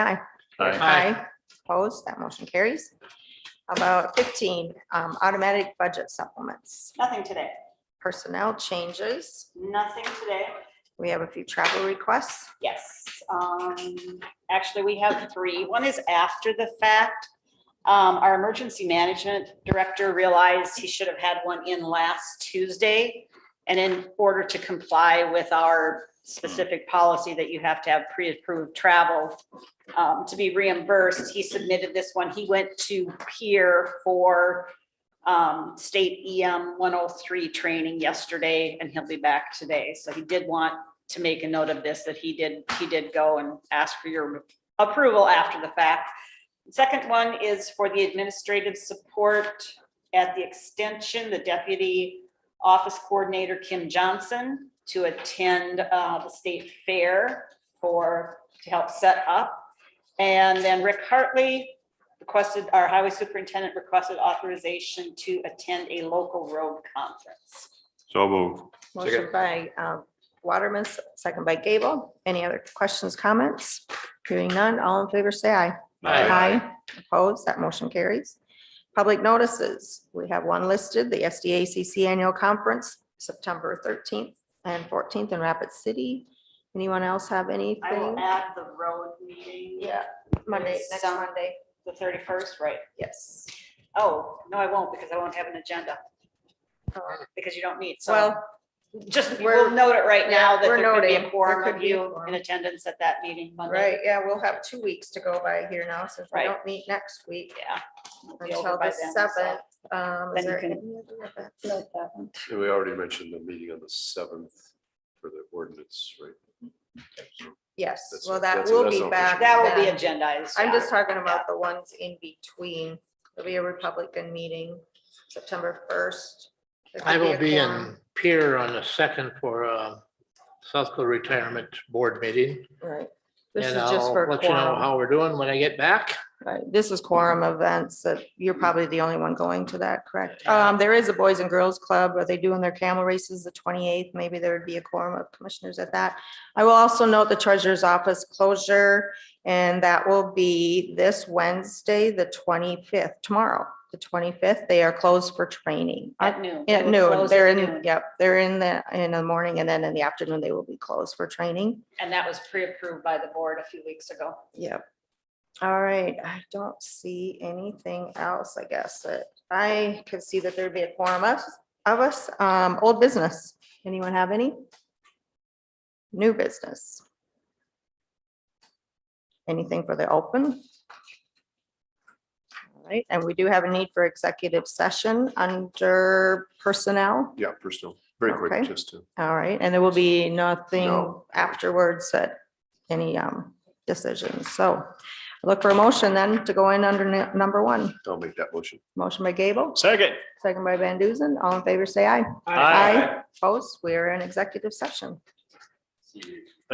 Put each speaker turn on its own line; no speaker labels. Aye.
Aye.
Aye. Opposed, that motion carries. How About fifteen, um, automatic budget supplements,
Nothing today,
personnel changes.
nothing today.
We have a few travel requests.
Yes, um, actually, we have three. One is after the fact. Um, our emergency management director realized he should have had one in last Tuesday. And in order to comply with our specific policy that you have to have pre-approved travel um, to be reimbursed, he submitted this one. He went to peer for um, state EM one oh three training yesterday, and he'll be back today. So he did want to make a note of this, that he did, he did go and ask for your approval after the fact. Second one is for the administrative support at the extension, the deputy office coordinator, Kim Johnson, to attend uh, the state fair for, to help set up. And then Rick Hartley requested, our highway superintendent requested authorization to attend a local road conference.
So move.
Motion by um, Waterman, second by Gable. Any other questions, comments? Hearing none, all in favor, say aye. Aye. Opposed, that motion carries. Public notices, we have one listed, the SDACC Annual Conference, September thirteenth and fourteenth in Rapid City. Anyone else have
I will
anything?
add the road meeting.
Yeah, Monday, next
Some-
Monday,
The thirty-first, right?
yes.
Oh, no, I won't because I won't have an agenda. um, Because you don't meet, so
Well,
just,
we're-
we'll note it right now
yeah,
that
we're
there could be
noting.
a
There
quorum
could
of
be a
you
quorum.
in attendance at that meeting Monday.
right, yeah, we'll have two weeks to go by here now since we
Right.
don't meet next week.
Yeah. it'll be
Until
over by
the
then, so.
seventh. Um, is
Then you
there
can-
any other event?
And we already mentioned the meeting on the seventh for the ordinance, right?
Yes,
That's-
well, that
that's-
will
that's
be
all.
back.
That will be
then.
agendized.
I'm
yeah.
just talking about the ones in between. There'll be a Republican meeting, September first.
I will be in Pier on the second for uh, South Dakota Retirement Board meeting.
Right. This is
And
just
I'll
for
let you know
quorum.
how we're doing when I get back.
Right, This is quorum events that you're probably the only one going to that, correct?
Yeah.
Um, there is a Boys and Girls Club. Are they doing their camel races the twenty-eighth? Maybe there would be a quorum of commissioners at that. I will also note the treasurer's office closure and that will be this Wednesday, the twenty-fifth, tomorrow, the twenty-fifth. They are closed for training. Uh,
At noon. It
At
will
noon,
close
they're
at
in,
noon.
yep, they're in the, in the morning and then in the afternoon, they will be closed for training.
And that was pre-approved by the board a few weeks ago.
Yep. All right, I don't see anything else, I guess, that I could see that there'd be a quorum of, of us, um, old business. Anyone have any? New business? Anything for the open? All right, and we do have a need for executive session under personnel.
Yeah, personal, very quick,
Okay.
just to,
All right, and there will be nothing
No.
afterwards that any um decisions. So look for a motion then to go in under nu- number one.
I'll make that motion.
Motion by Gable,
Second.
second by Van Duzen. All in favor, say aye.
Aye.
Opposed, we are in executive session.